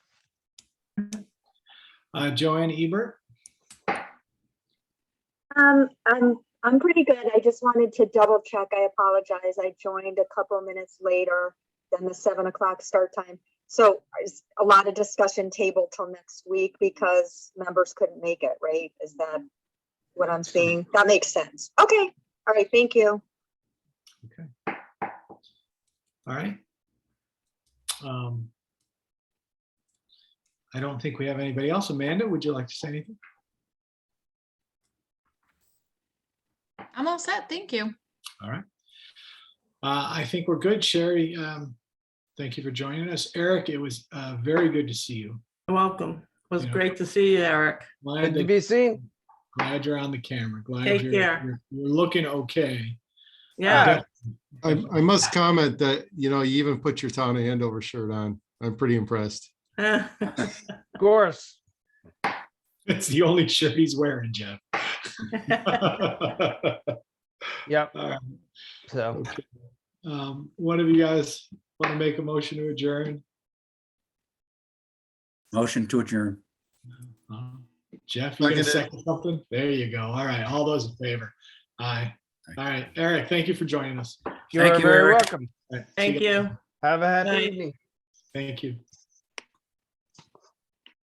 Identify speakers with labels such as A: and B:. A: Uh, Joanne Ebert,
B: Um, I'm, I'm pretty good. I just wanted to double check. I apologize. I joined a couple of minutes later than the seven o'clock start time. So is a lot of discussion table till next week because members couldn't make it, right? Is that what I'm seeing? That makes sense. Okay. All right. Thank you.
A: all right. Um, I don't think we have anybody else. Amanda, would you like to say anything?
C: I'm all set. Thank you.
A: All right. Uh, I think we're good. Sherry, um, thank you for joining us. Eric, it was uh, very good to see you.
D: You're Welcome. It was
A: Yeah.
D: great to see you, Eric.
A: Glad
E: Good to
A: that-
E: be seen.
A: glad you're on the camera. Glad
D: Take
A: you're,
D: care.
A: you're you're looking okay. Uh,
D: Yeah,
F: I, I must comment that, you know, you even put your town of Andover shirt on. I'm pretty impressed.
E: Of course.
A: It's the only shirt he's wearing, Jeff.
E: Yep.
A: All right.
E: So
A: Um, One of you guys want to make a motion to adjourn?
G: Motion to adjourn.
A: Uh, Jeff, you gonna
F: Seconded.
A: second something? There you go. All right, all those in favor? Aye. All right, Eric, thank you for joining us. All
E: you're
G: you,
E: very
G: Eric.
E: welcome.
A: right, see
D: thank you.
E: Have a happy
D: Night.
E: evening.
A: Thank you.